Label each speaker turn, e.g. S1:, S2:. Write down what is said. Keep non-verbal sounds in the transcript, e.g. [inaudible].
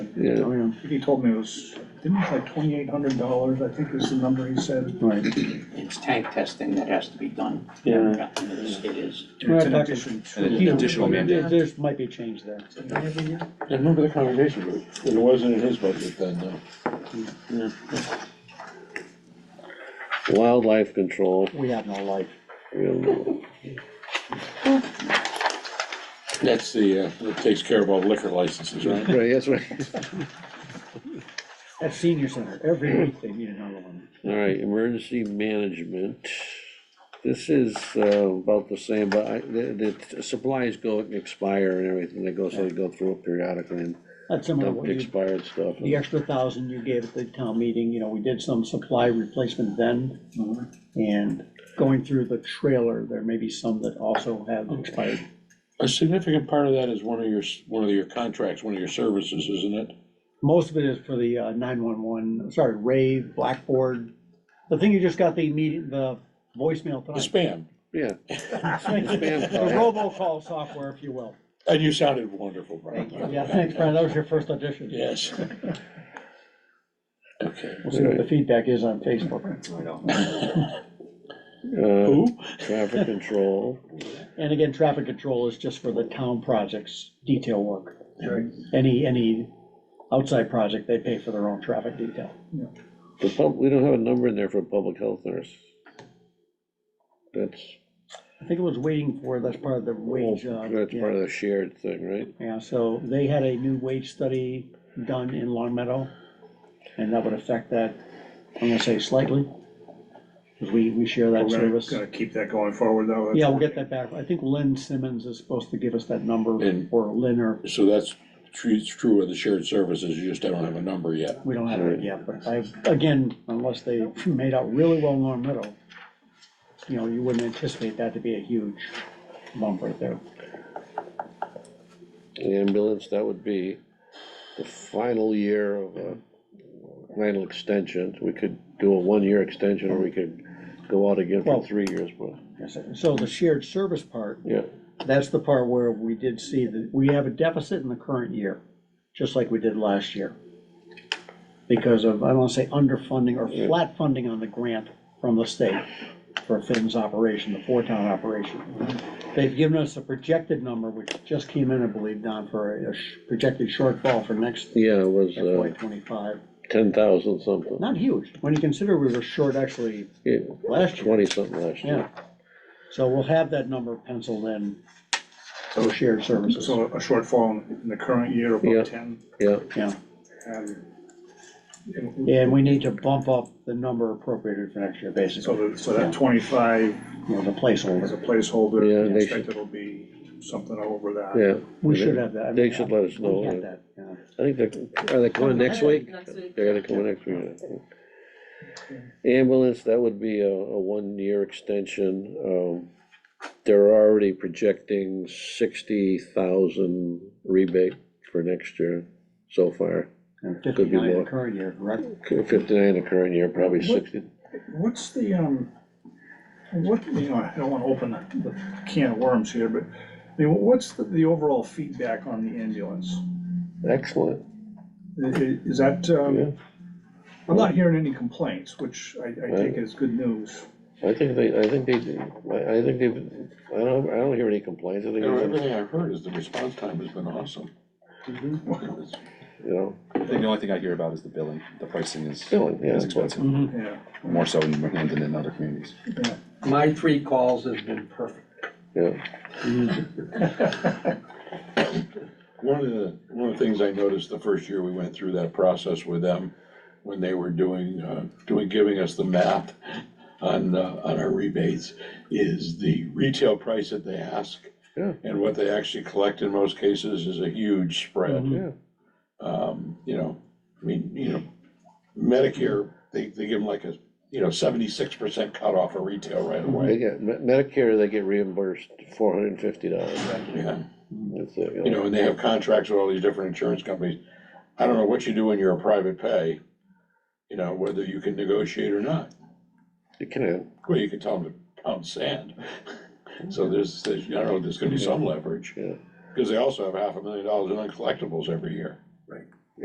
S1: Yeah,
S2: Oh, yeah,
S3: He told me it was, didn't it was like twenty-eight hundred dollars, I think is the number he said.
S2: right.
S4: It's tank testing that has to be done.
S2: Yeah.
S4: It is.
S3: And It's in
S2: Right,
S3: addition to.
S5: And an additional mandate.
S2: There's, might be a change there.
S1: I remember the conversation, but it wasn't in his budget then, no. Wildlife [laughs] control,
S2: We have no life.
S1: we don't know.
S5: That's the, uh, that takes care of all liquor licenses, right?
S1: Right, that's right.
S2: At senior center, every week they need another one.
S1: All right, emergency management. This is uh, about the same, but I, the, the supplies go and expire and everything, they go, so they go through it periodically and
S2: That's similar to
S1: dump
S2: what
S1: the
S2: you,
S1: expired stuff.
S2: the extra thousand you gave at the town meeting, you know, we did some supply replacement then.
S3: Mm-hmm.
S2: And going through the trailer, there may be some that also have expired.
S5: A significant part of that is one of your, s- one of your contracts, one of your services, isn't it?
S2: Most of it is for the uh, nine-one-one, sorry, rave, blackboard. The thing you just got the meeting, the voicemail
S5: The
S2: tonight.
S5: spam,
S2: [laughs]
S1: Yeah,
S2: The
S1: spam call.
S2: robocall software, if you will.
S5: and you sounded wonderful,
S2: Thank you.
S5: Brian.
S2: Yeah, thanks, Brian, that was your first audition.
S5: Yes. Okay.
S2: We'll see what the feedback is on Facebook.
S1: uh,
S5: Who?
S1: traffic control,
S2: And again, traffic control is just for the town projects, detail work. Any, any outside project, they pay for their own traffic detail.
S1: the pub, we don't have a number in there for a public health nurse. That's,
S2: I think it was waiting for, that's part of the wage. uh,
S1: that's
S2: yeah.
S1: part of the shared thing, right?
S2: Yeah, so they had a new wage study done in Long Meadow, and that would affect that, I'm gonna say slightly, because we, we share
S3: We're
S2: that
S3: gonna,
S2: service.
S3: gonna keep that going forward though. that's-
S2: Yeah, we'll get that back. I think Lynn Simmons is supposed to give us that number,
S5: And-
S2: or Lynn, or,
S5: So that's true, it's true of the shared services, you just don't have a number yet.
S2: we don't have it yet, but I, again, unless they [laughs] made out really well in Long Meadow, you know, you wouldn't anticipate that to be a huge bump right there.
S1: The ambulance, that would be the final year of a final extension. We could do a one-year extension, or we could go out again
S2: Well-
S1: for three years, but,
S2: Yes, sir. So the shared service part,
S1: yeah.
S2: That's the part where we did see that we have a deficit in the current year, just like we did last year. Because of, I don't wanna say underfunding or flat funding on the grant from the state for Finn's operation, the four-town operation. They've given us a projected number, which just came in, I believe, Don, for a- a sh- projected shortfall for next
S1: Yeah, it was,
S2: FY
S1: uh,
S2: twenty-five.
S1: ten thousand something,
S2: Not huge, when you consider we were short actually
S1: yeah,
S2: last year,
S1: twenty something last
S2: yeah.
S1: year.
S2: So we'll have that number penciled in for shared services,
S3: So a shortfall in the current year of
S1: Yeah.
S3: about ten.
S1: Yeah,
S2: yeah.
S3: um,
S2: And we need to bump up the number appropriated for next year,
S3: So
S2: basically,
S3: that, so that twenty-five
S2: you know, the
S3: is a
S2: placeholder.
S1: Yeah,
S3: placeholder,
S1: they
S3: I expect
S1: should-
S3: it'll be something over that.
S1: yeah,
S2: We should have that. I mean,
S1: They should let us
S2: we
S1: know.
S2: had that, yeah.
S1: I think they're, are they coming next week?
S6: Next week.
S1: They're gonna come next week. I think. Ambulance, that would be a, a one-year extension, um, they're already projecting sixty thousand rebate for next year so far.
S2: And
S1: be
S2: Fifty-nine
S1: more.
S2: the current year, correct?
S1: Fifty-nine the current year, probably sixty,
S3: What's the, um, what, you know, I don't wanna open the can of worms here, but, I mean, what's the, the overall feedback on the ambulance?
S1: excellent,
S3: I- i- Is that,
S1: yeah,
S3: um, I'm not hearing any complaints, which I, I
S1: Right.
S3: take as good news.
S1: I think they, I think they, I, I think they've, I don't, I don't hear any complaints, I think,
S5: You know,
S1: it's,
S5: everything I've heard is the response time has been awesome. It's-
S1: you know,
S7: I think the only thing I hear about is the billing, the pricing is,
S1: Billing, yeah.
S7: is expensive,
S3: Yeah,
S7: more so in Vermont than in other communities.
S4: My three calls have been perfect.
S1: yeah,
S5: One of the, one of the things I noticed the first year we went through that process with them, when they were doing, uh, doing, giving us the math on, uh, on our rebates, is the retail price that they ask.
S1: Yeah.
S5: And what they actually collect in most cases is a
S2: Mm-hmm.
S5: huge spread.
S1: yeah,
S5: Um, you know, I mean, you know, Medicare, they, they give them like a, you know, seventy-six percent cutoff of retail right
S1: they
S5: away.
S1: get, Medicare, they get reimbursed four hundred and fifty dollars,
S5: Yeah.
S1: that's it,
S5: you know, and they have contracts with all these different insurance companies. I don't know what you do when you're a private pay, you know, whether you can negotiate or not.
S1: You can,
S5: Well, you can tell them to pound sand. [laughs] So there's, there's, I don't know, there's gonna be some leverage.
S1: Yeah.
S5: Because they also have half a million dollars in uncollectibles every year.
S4: Right.